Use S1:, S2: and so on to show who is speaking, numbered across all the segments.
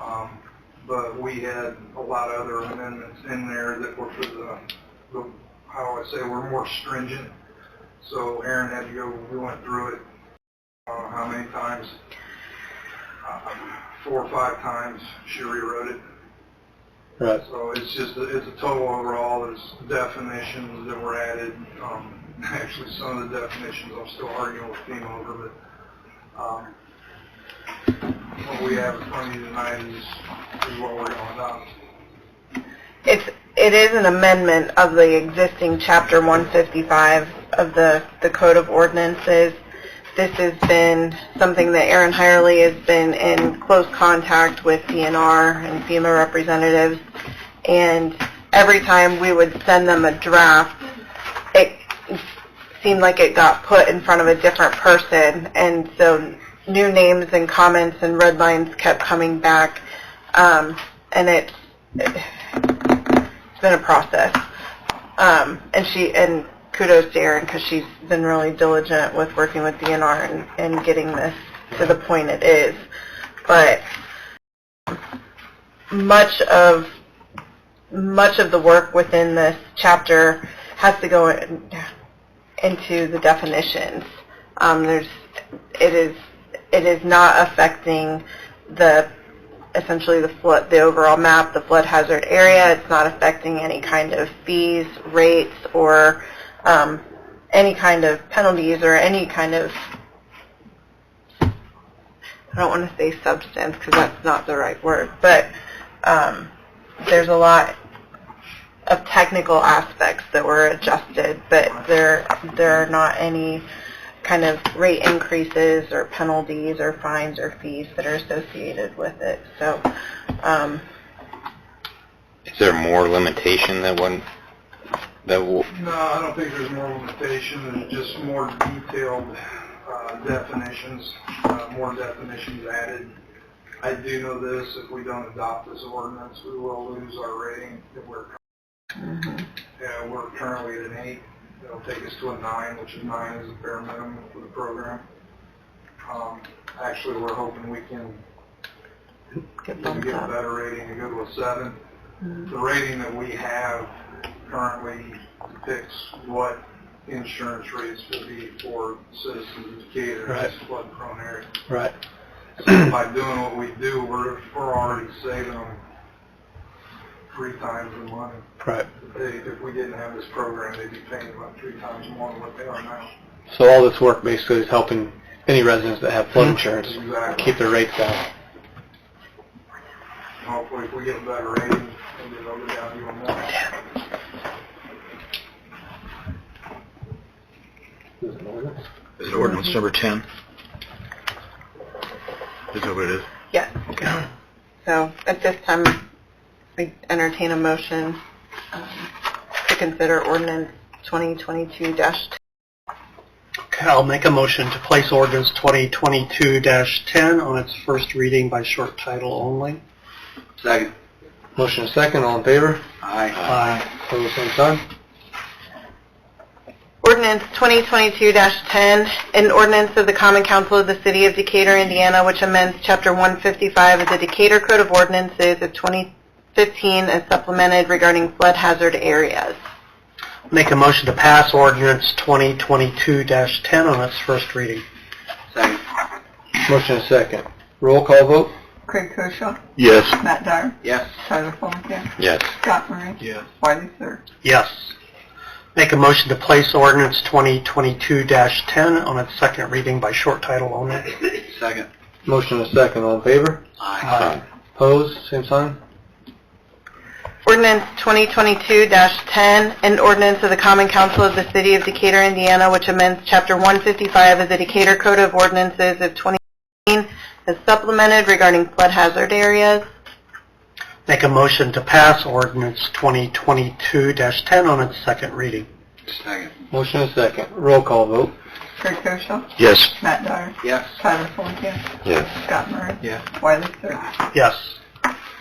S1: Um, but we had a lot of other amendments in there that were for the, the, how I say, were more stringent. So Aaron had to go, we went through it, uh, how many times? Uh, Four or five times she rewrote it.
S2: Right.
S1: So it's just, a- it's a total overall, there's definitions that were added. Um, actually, some of the definitions I'm still arguing with FEMA over, but, um, what we have in front of you tonight is, is what we're going down.
S3: It's, it is an amendment of the existing Chapter 155 of the, the Code of Ordinances. This has been something that Aaron Hirely has been in close contact with DNR and FEMA representatives. And every time we would send them a draft, it seemed like it got put in front of a different person. And so new names and comments and red lines kept coming back. Um, and it's, it's been a process. Um, and she and kudos to Erin because she's been really diligent with working with DNR and, and getting this to the point it is. But much of much of the work within this chapter has to go in, into the definitions. Um, there's it is it is not affecting the essentially the flood, the overall map, the flood hazard area. It's not affecting any kind of fees, rates, or um, any kind of penalties or any kind of, I don't want to say substance because that's not the right word, but um, there's a lot of technical aspects that were adjusted, but there, there are not any kind of rate increases or penalties or fines or fees that are associated with it. So, um,
S4: Is there more limitation that one, that will,
S1: No, I don't think there's more limitation, there's just more detailed uh, definitions, uh, more definitions added. I do know this, if we don't adopt this ordinance, we will lose our rating. If We're, yeah, we're currently at an eight, it'll take us to a nine, which is nine is the bare minimum for the program. Um, Actually, we're hoping we can
S3: get
S1: to
S3: bumped
S1: get a
S3: up.
S1: better rating and go to a seven. The rating that we have currently depicts what insurance rates will be for citizens of Decatur,
S2: Right.
S1: this flood prone area.
S2: Right.
S1: So by doing what we do, we're, we're already saving them three times the money.
S2: Right.
S1: If They, if we didn't have this program, they'd be paying about three times more than what they are now.
S2: So all this work basically is helping any residents that have flood insurance
S1: Exactly.
S2: keep their rates down.
S1: Hopefully, if we get a better rating, maybe they'll go down even more.
S5: Is it ordinance number 10? Is that what it is?
S3: Yes. So at this time, we entertain a motion um, to consider ordinance 2022-10.
S2: Okay, I'll make a motion to place ordinance 2022-10 on its first reading by short title only.
S5: Second.
S2: Motion is second, all in favor?
S5: Aye.
S2: Aye. Pose same sign?
S3: Ordinance 2022-10, an ordinance of the Common Council of the City of Decatur, Indiana, which amends Chapter 155 of the Decatur Code of Ordinances of 2015 as supplemented regarding flood hazard areas.
S2: Make a motion to pass ordinance 2022-10 on its first reading.
S5: Second.
S2: Motion is second. Roll call vote?
S6: Craig Koshaw,
S5: Yes.
S6: Matt Dyer,
S5: Yes.
S6: Tyler Fulenkamp,
S4: yes,
S6: Scott Murray,
S5: Yes.
S6: Wiley Sir.
S2: Yes. Make a motion to place ordinance 2022-10 on its second reading by short title only.
S5: Second.
S2: Motion is second, all in favor?
S5: Aye.
S2: Pose same sign?
S3: Ordinance 2022-10, an ordinance of the Common Council of the City of Decatur, Indiana, which amends Chapter 155 of the Decatur Code of Ordinances of 2015 as supplemented regarding flood hazard areas.
S2: Make a motion to pass ordinance 2022-10 on its second reading.
S5: Second.
S2: Motion is second. Roll call vote.
S6: Craig Koshaw,
S4: yes,
S6: Matt Dyer,
S5: Yes.
S6: Tyler Fulenkamp,
S4: yes,
S6: Scott Murray,
S5: Yes.
S6: Wiley Sir.
S2: Yes.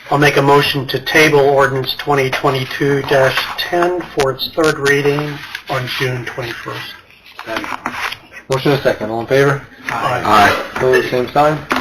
S2: I'll make a motion to table ordinance 2022-10 for its third reading on June 21st.
S5: Second.
S2: Motion is second. All in favor?
S5: Aye.
S2: Pose same sign?